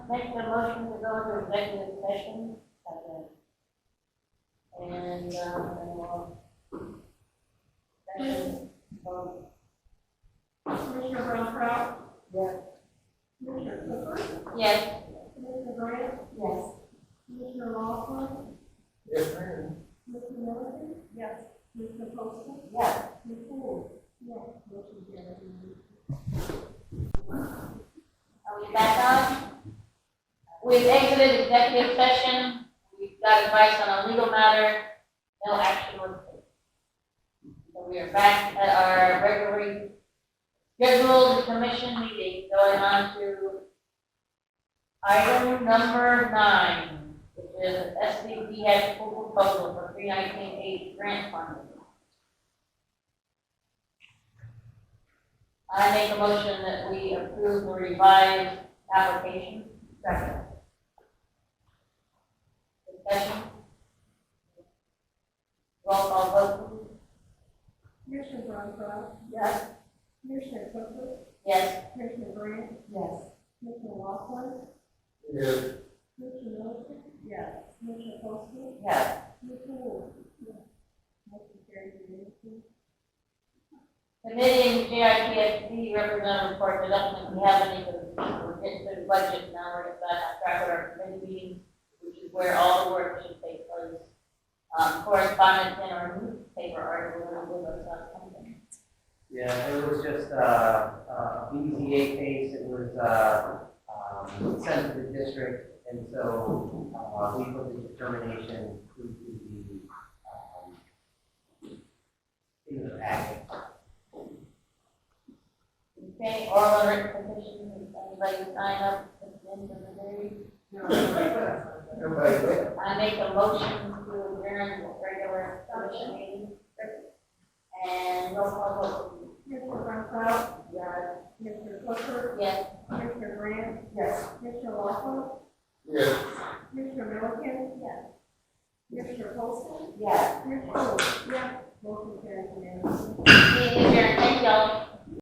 make the motion to go into executive session. second. And, um, and we'll. Second, um, Commissioner Brown Proud, yes, Commissioner Clifford, yes, Commissioner Grant, yes. Commissioner Lawson, Yes, ma'am. Commissioner Milovich? Yes. Commissioner Postle? Yes. Commissioner Wood? Yes. Motion carried. Are we back on? We've exited executive session. We've got advice on a legal matter. No action was taken. So we are back at our regularly scheduled commission meeting going on to item number nine, which is SVB's full proposal for three nineteen eight grant funding. I make a motion that we approve the revised application. Second. Discussion. Roll call vote. Commissioner Brown Proud, Yes. Commissioner Clifford, Yes. Commissioner Grant, Yes. Commissioner Lawson, Yes, Commissioner Milovich? Yes. Commissioner Postle, Yes. Commissioner Wood? Yes. Motion carried unanimously. Committee and JITSD representative report, I don't think we have any, because we're getting to the budget now, we're gonna track our committee meetings, which is where all the work should take place. Um, correspondence in our newspaper article, we're gonna do those on Sunday. Yeah, it was just uh, a BZA case, it was uh, um, sent to the district, and so uh, we put the determination to the, um, in the packet. Okay, oral and written petitions, if anybody sign up at the end of the day. everybody good? I make a motion to adjourn the regular commission meeting. And roll call Commissioner Brown Proud, vote, yes, Commissioner Clifford, yes, Commissioner Grant? Yes. Commissioner Lawson? Yes, Commissioner Milliken? Yes. Commissioner Postle? yes. Commissioner Wood? Yes. Motion carries unanimously. Meeting adjourned, thank y'all.